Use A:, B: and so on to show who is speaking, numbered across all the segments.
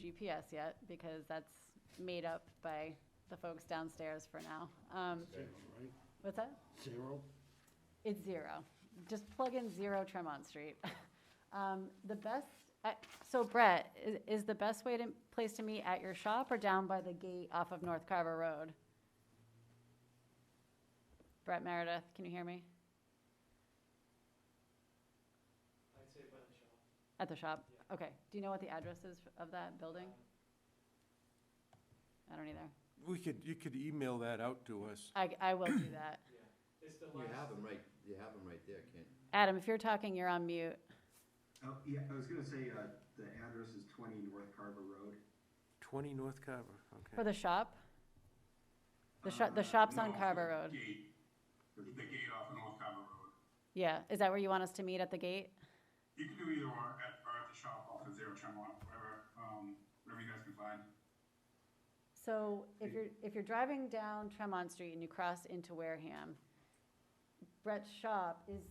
A: GPS yet, because that's made up by the folks downstairs for now. Um,
B: Zero, right?
A: what's that?
B: Zero?
A: It's zero. Just plug in zero Tremont Street. Um, the best, uh, so Brett, is, is the best way to, place to meet at your shop or down by the gate off of North Carver Road? Brett Meredith, can you hear me?
C: I'd say by the shop.
A: At the shop? Okay. Do you know what the address is of that building? I don't either.
D: We could, you could email that out to us.
A: I, I will do that.
C: Yeah, it's the
E: You have
C: last,
E: them right, you have them right there, Ken.
A: Adam, if you're talking, you're on mute.
F: Oh, yeah, I was gonna say, uh, the address is twenty North Carver Road.
D: 20 North Carver,
A: For the
D: okay.
A: shop? The shop, the
F: Uh,
A: shop's on
G: No,
A: Carver
G: the
A: Road.
G: Gate, the the gate off of North Carver Road.
A: Yeah. Is that where you want us to meet at the gate?
G: You can do either or at, or at the shop off of Zero Tremont, whatever, um, whatever you guys can find.
A: So if you're, if you're driving down Tremont Street and you cross into Wareham, Brett's shop is,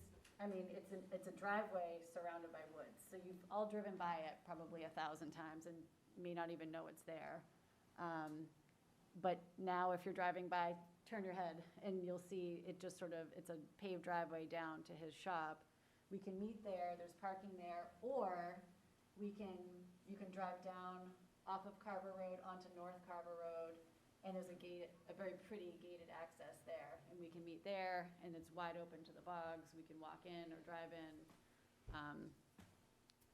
A: I mean, it's an, it's a driveway surrounded by woods. So you've all driven by it probably a thousand times and may not even know it's there. Um, But now if you're driving by, turn your head and you'll see it just sort of, it's a paved driveway down to his shop. We can meet there, there's parking there, or we can, you can drive down off of Carver Road onto North Carver Road. And there's a gate, a very pretty gated access there, and we can meet there, and it's wide open to the bogs, we can walk in or drive in. Um,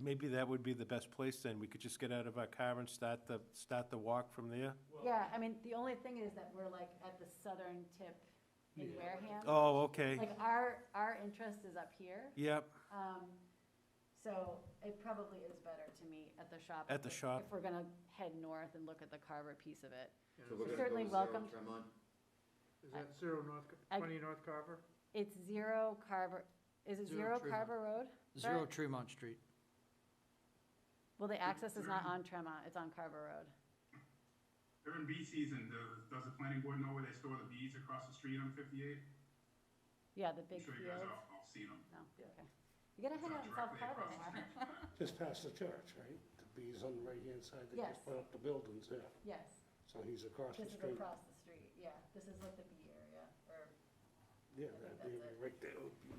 D: Maybe that would be the best place then. We could just get out of our car and start the, start the walk from there.
C: well,
A: Yeah, I mean, the only thing is that we're like at the southern tip in
C: Yeah.
A: Wareham.
D: Oh, okay.
A: Like, our, our interest is up here,
D: Yep,
A: um, so it probably is better to meet at the shop.
D: At
A: if
D: the
A: we're-
D: shop.
A: If we're gonna head north and look at the Carver piece of it.
E: So we're
A: You're
E: gonna go
A: certainly
E: to zero
A: welcome.
E: Tremont?
C: is that zero North, Ca-
A: I-
C: twenty North Carver?
A: It's zero Carver, is it
C: Zero
A: zero
C: Tremont.
A: Carver Road?
C: Zero
A: Brett?
C: Tremont Street.
A: Well, the access is not on Tremont, it's on Carver Road.
G: During bee season, does, does the planning board know where they store the bees across the street on fifty-eight?
A: Yeah, the
G: I'm
A: big
G: sure
A: field.
G: you guys all, all seen them.
A: No, okay. You gotta head out and solve Carver more.
B: Just past the church, right? The bees on the right-hand side that
A: Yes.
B: just put up the buildings there.
A: Yes,
B: So he's across the
A: this is
B: street.
A: across the street, yeah. This is like the B area, or,
B: Yeah,
A: I think
B: that
A: that's
B: area
A: it.
B: right there would be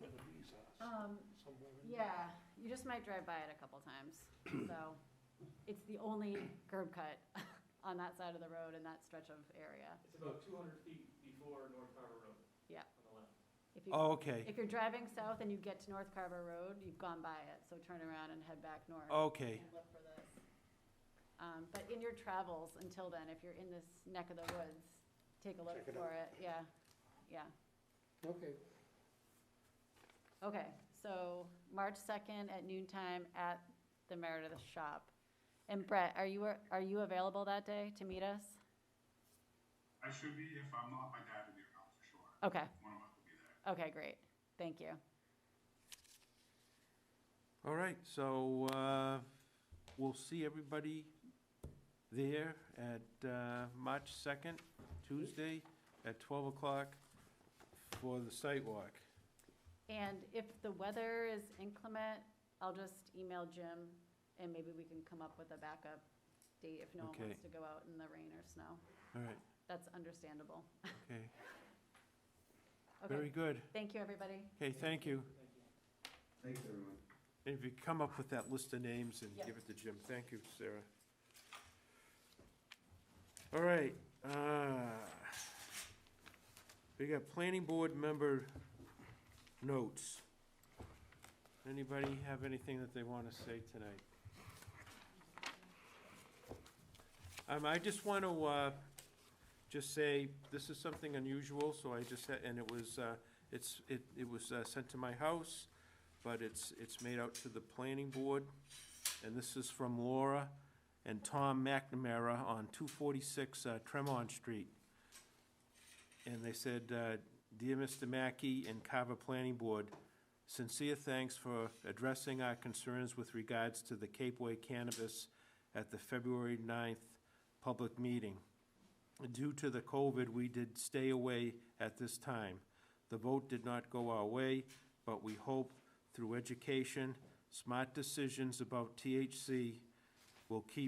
B: where the bees are,
A: um,
B: somewhere in there.
A: yeah, you just might drive by it a couple times. So, it's the only curb cut on that side of the road in that stretch of area.
C: It's about two hundred feet before North Carver Road.
A: Yeah.
C: On the left.
A: If you,
D: oh, okay,
A: if you're driving south and you get to North Carver Road, you've gone by it, so turn around and head back north.
D: okay.
A: and look for this. Um, but in your travels until then, if you're in this neck of the woods, take a look
B: Check it
A: for it, yeah, yeah.
B: Okay,
A: Okay, so March second at noon time at the Meredith Shop. And Brett, are you, are you available that day to meet us?
G: I should be, if I'm not, my dad will be around for sure.
A: Okay,
G: One of us will be there.
A: okay, great, thank you.
D: All right, so, uh, we'll see everybody there at, uh, March second, Tuesday, at twelve o'clock for the site walk.
A: And if the weather is inclement, I'll just email Jim and maybe we can come up with a backup date if no one
D: Okay.
A: wants to go out in the rain or snow.
D: All right,
A: That's understandable.
D: okay, very
A: Okay,
D: good.
A: thank you, everybody.
D: Okay, thank you.
C: Thank you.
F: Thanks, everyone.
D: And If you come up with that list of names and give
A: Yes.
D: it to Jim, thank you, Sarah. All right, uh, we got planning board member notes. Anybody have anything that they want to say tonight? Um, I just want to, uh, just say, this is something unusual, so I just, said- and it was, uh, it's, it, it was uh, sent to my house but it's, it's made out to the planning board. And this is from Laura and Tom McNamara on two forty-six uh, Tremont Street. And they said, uh, Dear Mr. Mackey and Carver Planning Board, sincere thanks for addressing our concerns with regards to the Cape Way cannabis at the February 9th public meeting. Due to the COVID, we did stay away at this time. The vote did not go our way, but we hope through education, smart decisions about THC will keep